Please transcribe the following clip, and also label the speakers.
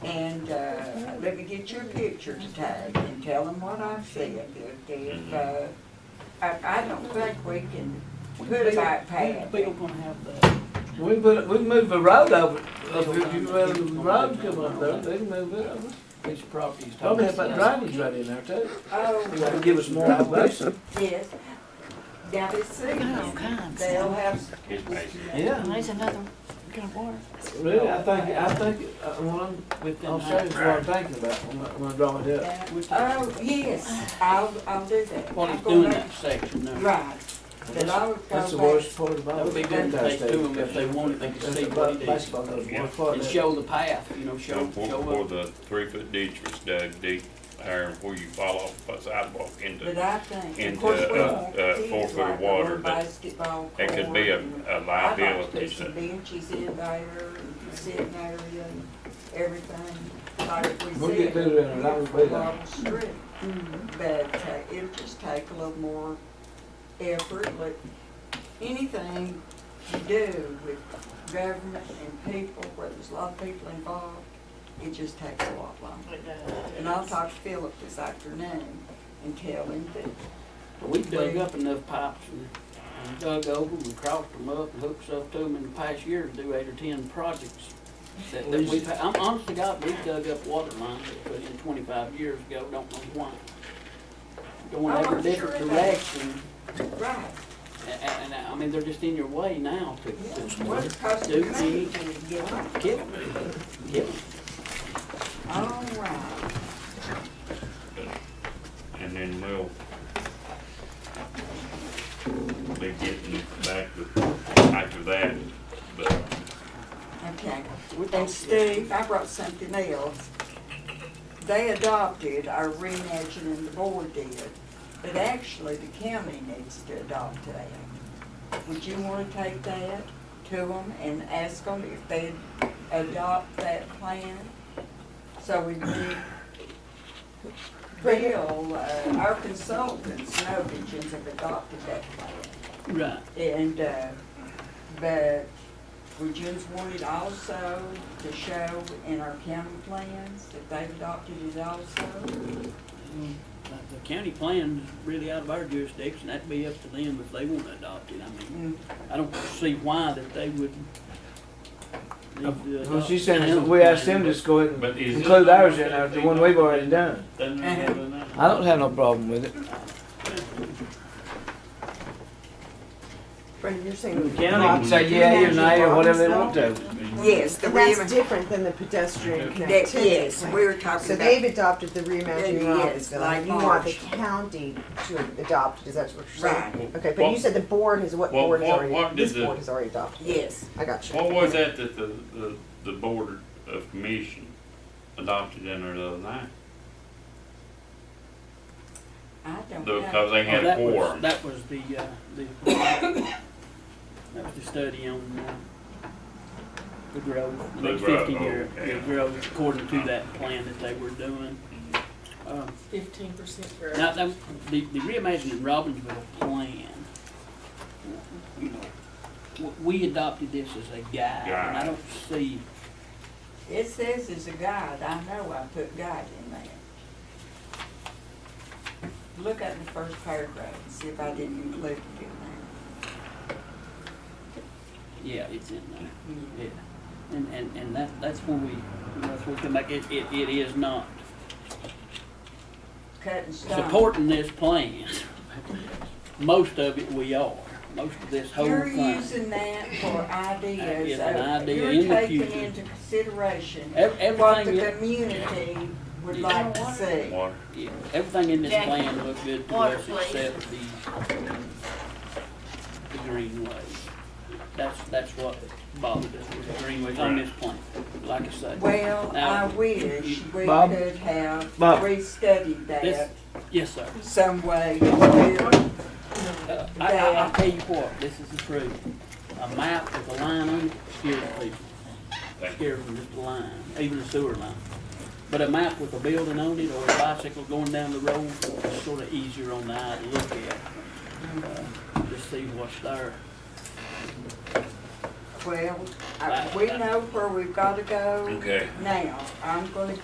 Speaker 1: uh, let me get your pictures tagged and tell them what I've said. If, if,
Speaker 2: Mm-hmm.
Speaker 1: uh, I, I don't think we can put a bike path.
Speaker 3: Bill gonna have the,
Speaker 4: We put, we move the road over, up here, you rather the road come up there, they can move it over.
Speaker 3: his property's.
Speaker 4: Probably have that drainage right in there too.
Speaker 1: Oh,
Speaker 4: That'll give us more elevation.
Speaker 1: yes. That is
Speaker 5: all
Speaker 1: season.
Speaker 5: kinds.
Speaker 1: They'll have,
Speaker 2: His patient.
Speaker 4: Yeah,
Speaker 5: There's another, gonna work.
Speaker 4: really, I think, I think, uh, what I'm, I'll show you what I'm thinking about when I, when I draw it up.
Speaker 1: oh, yes, I'll, I'll do that.
Speaker 3: What he's
Speaker 1: I'll go
Speaker 3: doing
Speaker 1: back-
Speaker 3: that section now.
Speaker 1: Right. Then I'll
Speaker 4: That's the
Speaker 1: go back.
Speaker 4: worst part
Speaker 3: That
Speaker 4: about
Speaker 3: would be
Speaker 4: it.
Speaker 3: good if they do them, if they wanted, they could
Speaker 4: That's
Speaker 3: see
Speaker 4: the
Speaker 3: what he does.
Speaker 4: baseball, that's
Speaker 2: Yeah.
Speaker 4: one part
Speaker 3: And
Speaker 4: of it.
Speaker 3: show the path, you know,
Speaker 2: So
Speaker 3: show,
Speaker 2: for, for
Speaker 3: show up.
Speaker 2: the three foot ditch was dug deep, there where you fall off the sidewalk
Speaker 1: But
Speaker 2: into,
Speaker 1: I think,
Speaker 2: into,
Speaker 1: of course, we
Speaker 2: uh,
Speaker 1: won't
Speaker 2: uh,
Speaker 1: see
Speaker 2: four
Speaker 1: it
Speaker 2: foot of
Speaker 1: like a
Speaker 2: water,
Speaker 1: little
Speaker 2: but
Speaker 1: basketball
Speaker 2: that could be a,
Speaker 1: court and-
Speaker 2: a
Speaker 1: I'd like to
Speaker 2: liability.
Speaker 1: put some benches in there, sitting area, and everything, like we
Speaker 4: We'll
Speaker 1: said.
Speaker 4: get better at it, I will be there.
Speaker 1: Well, sure. But uh, it'll just take a little more effort, but anything you do with government and people, where there's a lot of people involved, it just takes a lot longer. And I'll talk to Philip this afternoon and tell him that,
Speaker 3: We dug up enough pipes and and dug over them and crossed them up and hooked up to them in the past year to do eight or ten projects. That, that we've, had- I'm honest to God, we've dug up water lines that put in twenty-five years ago, don't know why. Going
Speaker 1: Oh,
Speaker 3: every
Speaker 1: I'm
Speaker 3: different
Speaker 1: sure it
Speaker 3: direction,
Speaker 1: right,
Speaker 3: and, and, I mean, they're just in your way now to,
Speaker 1: yeah,
Speaker 3: to
Speaker 1: what it costs to
Speaker 3: Do we-
Speaker 1: manage it, get on.
Speaker 3: kill them, kill them.
Speaker 1: All right,
Speaker 2: And then we'll be getting back with, after that, but
Speaker 1: okay.
Speaker 3: We're talking-
Speaker 1: And Steve, I brought something else. They adopted our reimagining, and the board did, but actually the county needs to adopt that. Would you wanna take that to them and ask them if they'd adopt that plan? So we can, Bill, uh, our consultants, Novigins have adopted that plan.
Speaker 3: Right.
Speaker 1: And, uh, but we just wanted also to show in our county plans that they've adopted it also.
Speaker 3: The county plan's really out of our jurisdiction, that'd be up to them if they wanna adopt it, I mean,
Speaker 1: Mm,
Speaker 3: I don't see why that they would. need to
Speaker 4: Well, Uh, she's
Speaker 3: adopt
Speaker 4: saying,
Speaker 3: the
Speaker 4: is we asked
Speaker 3: plan,
Speaker 4: them to just go ahead
Speaker 2: But
Speaker 4: and
Speaker 2: is it-
Speaker 4: include ours in there, the one we've already done.
Speaker 3: but then they're
Speaker 1: Uh-huh.
Speaker 3: gonna-
Speaker 4: I don't have no problem with it.
Speaker 6: Brendan, you're saying.
Speaker 4: I'd Mm, say yeah, you nay, or whatever they want to.
Speaker 1: Yes, the
Speaker 6: And that's
Speaker 1: reimagining,
Speaker 6: different than the pedestrian
Speaker 1: that,
Speaker 6: connectivity
Speaker 1: yes,
Speaker 6: plan.
Speaker 1: we're talking
Speaker 6: So they've
Speaker 1: about,
Speaker 6: adopted the reimagining
Speaker 1: Yeah, yes,
Speaker 6: Robbinsville,
Speaker 1: like
Speaker 6: and you want the
Speaker 1: Marsh.
Speaker 6: county to adopt it, is that what you're saying?
Speaker 1: right,
Speaker 6: Okay, but you
Speaker 2: Well-
Speaker 6: said the board has, what
Speaker 2: well,
Speaker 6: board has
Speaker 2: what-
Speaker 6: already,
Speaker 2: what did
Speaker 6: this
Speaker 2: the-
Speaker 6: board has already adopted it?
Speaker 1: yes.
Speaker 6: I got you.
Speaker 2: what was that that the, the, the board of commission adopted in there the other night?
Speaker 1: I don't
Speaker 2: The-
Speaker 1: know.
Speaker 2: Cause they
Speaker 3: Oh,
Speaker 2: had
Speaker 3: that was-
Speaker 2: four.
Speaker 3: That was the, uh, the, that was the study on, uh, the growth, the
Speaker 2: The
Speaker 3: next
Speaker 2: growth,
Speaker 3: fifty year,
Speaker 2: okay.
Speaker 3: the growth according to that plan that they were doing. Um,
Speaker 7: fifteen percent for.
Speaker 3: Now, now, the, the reimagining Robbinsville plan, you know, w- we adopted this as a guide, and I
Speaker 2: Guide.
Speaker 3: don't see,
Speaker 1: It says it's a guide, I know I put guide in there. Look at the first paragraph and see if I didn't include it in
Speaker 3: yeah, it's in there,
Speaker 1: there.
Speaker 3: yeah. And, and, and that, that's where we, you know, that's where we come back, it, it, it is not
Speaker 1: Mm. Cut and stone.
Speaker 3: supporting this plan. Most of it we are, most of this whole
Speaker 1: You're
Speaker 3: thing.
Speaker 1: using that for ideas,
Speaker 3: is an
Speaker 1: of-
Speaker 3: idea
Speaker 1: you're
Speaker 3: in the
Speaker 1: taking
Speaker 3: future.
Speaker 1: into consideration
Speaker 3: Ev-
Speaker 1: what the
Speaker 3: Everything, in-
Speaker 1: community would
Speaker 3: Yeah.
Speaker 1: like to see.
Speaker 2: Water.
Speaker 3: yeah, everything in this
Speaker 5: Jackie,
Speaker 3: plan looked good to
Speaker 5: water,
Speaker 3: us
Speaker 5: please.
Speaker 3: except the, the greenway. That's, that's what bothered us, was the greenway on this plan, like I say.
Speaker 1: Well, I
Speaker 3: Now,
Speaker 1: wish we
Speaker 4: Bob?
Speaker 1: could have
Speaker 4: Bob?
Speaker 1: restudied that
Speaker 3: This- Yes, sir.
Speaker 1: some way. to-
Speaker 3: Uh, I, I, I'll tell you what, this is the truth. A map with a line on it scares people.
Speaker 2: Thank
Speaker 3: Scares them just a line, even a sewer line. But a map with a building on it or a bicycle going down the road is sort of easier on the eye to look at. Uh, Just see what's there.
Speaker 1: Well, I- we know where we've gotta go
Speaker 2: Okay.
Speaker 1: now. I'm gonna